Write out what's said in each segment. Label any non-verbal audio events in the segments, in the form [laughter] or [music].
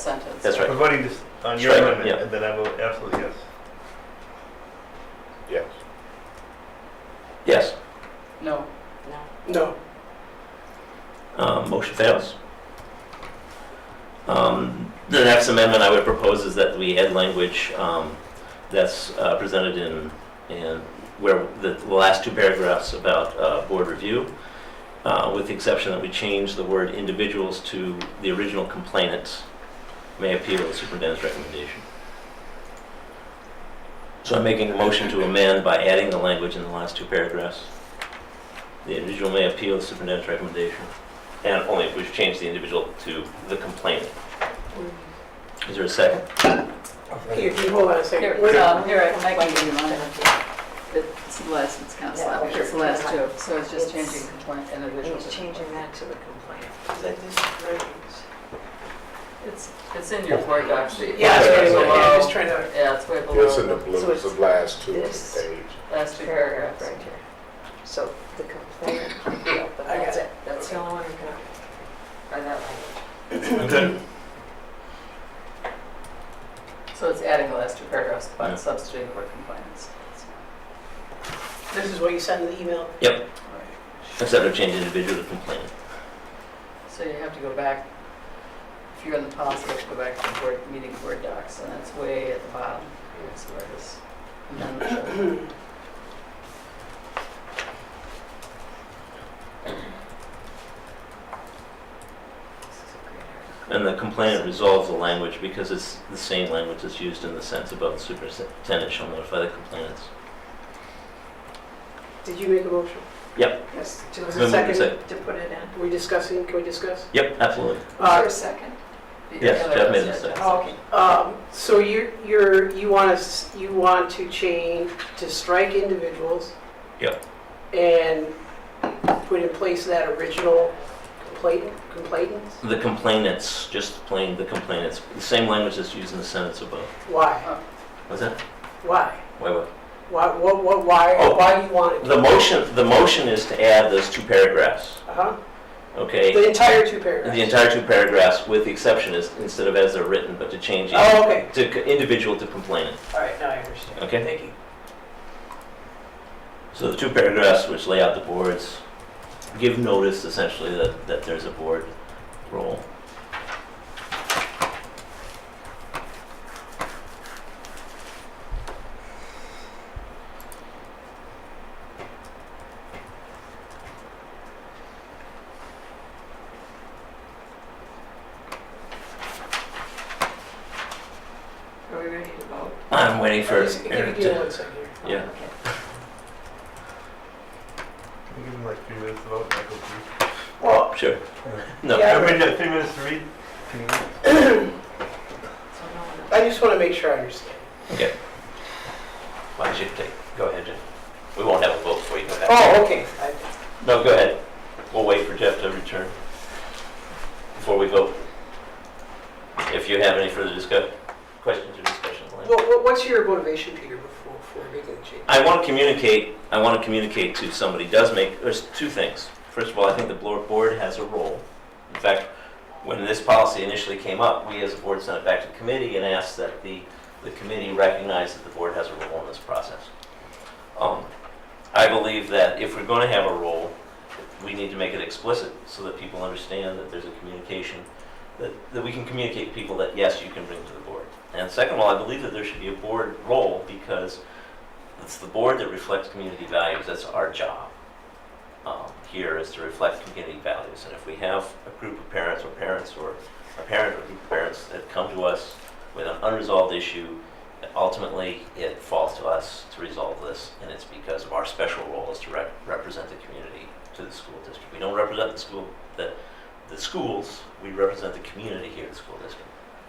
sentence. That's right. We're voting this on your Sure, amendment, yeah. and then I vote absolutely yes. Yes. Yes. No. No. Um, Motion fails. Um, The next amendment I would propose is that we add language um, that's uh, presented in, in where the the last two paragraphs about uh, board review, uh, with the exception that we change the word individuals to the original complainants may appeal the superintendent's recommendation. So I'm making a motion to amend by adding the language in the last two paragraphs. The individual may appeal the superintendent's recommendation. And only if we've changed the individual to the complainant. Is there a second? Here, you hold on a Here, second. Wait. um, here, I can make it even longer. It's the last, it's kind of sloppy, it's the last two, so it's just It's- changing complaint individual. He's to- changing that to the complaint. It's, it's in your board doc sheet. Yeah, I was It's trying way to, yeah, I was below, yeah, trying to, it's way It's in the below, blue, So it's the it's last two of this. the page. the last two Paragraph paragraphs. right here. So the complaint, yeah, but [laughs] I got that's it. it. That's the only one we can, Or that Okay. one. So it's adding the last two paragraphs, Yeah. but substituting the word complainants. this is what you sent in the email? Except I've changed individual to complainant. So you have to go back, if you're in the policy, you have to go back to the board, meeting board docs, and that's way at the bottom. Here's where this amendment should And the complainant resolves the language because it's the same language that's used in the sentence about the superintendent shall notify the complainants. Did you make a motion? Yep. Yes. do. There was Then a we can second to put it in. Are we discussing, can we discuss? Yep, absolutely. Was there Uh, a second? Yes, Yeah, Jeff made that's the it. second. Oh, Okay. Um, so you're, you're, you want us, you want to change, to strike individuals? Yep. And put in place that original complaint, complainants? The complainants, just plain the complainants, the same language that's used in the sentence above. Why? What's that? Why? Wait, wait. Why, what, what, why, Oh. why do you want it? The motion, the motion is to add those two paragraphs, Uh-huh, okay? the entire two The paragraphs? entire two paragraphs, with the exception is, instead of as they're written, but to change it Oh, okay, to c- individual to complainant. all right, now I understand. Okay. Thank you. So the two paragraphs which lay out the boards give notice essentially that, that there's a board role. Are we ready to vote? I'm waiting for Just give- Eric Give me to, one second here. Yeah. Okay. Can we give him like three minutes to vote, Michael, please? Well, Oh, sure. Yeah. No, I mean, uh, three minutes to read? Can you- So no one else. I just want to make sure I understand. why don't you take, go ahead, Jeff. We won't have a vote before you go back. Oh, okay, I- No, go ahead. We'll wait for Jeff to return before we vote. If you have any further discuss, questions or discussion. Lynn. Well, what- what's your motivation, Peter, before, before making the change? I want to communicate, I want to communicate to somebody, does make, there's two things. First of all, I think the blo- board has a role. In fact, when this policy initially came up, we as a board sent it back to the committee and asked that the, the committee recognize that the board has a role in this process. Um, I believe that if we're going to have a role, we need to make it explicit so that people understand that there's a communication, that, that we can communicate to people that, yes, you can bring to the board. And second of all, I believe that there should be a board role because it's the board that reflects community values, that's our job um, here is to reflect community values. And if we have a group of parents or parents or a parent or group of parents that come to us with an unresolved issue, ultimately it falls to us to resolve this. And it's because of our special role is to rep- represent the community to the school district. We don't represent the school, the, the schools, we represent the community here at the school district.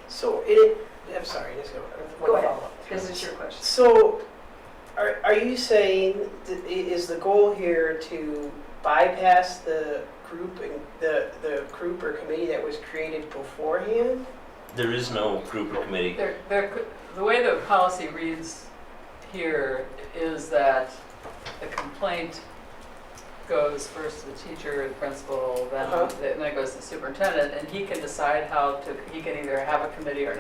So it, I'm sorry, let's go. Go ahead. follow-up. This is your question. So are, are you saying, that i- is the goal here to bypass the group and the, the group or committee that was created beforehand? There is no group or committee There, there, could- the way the policy reads here is that the complaint goes first to the teacher, the principal, then, Uh-huh. then it goes to the superintendent, and he can decide how to, he can either have a committee or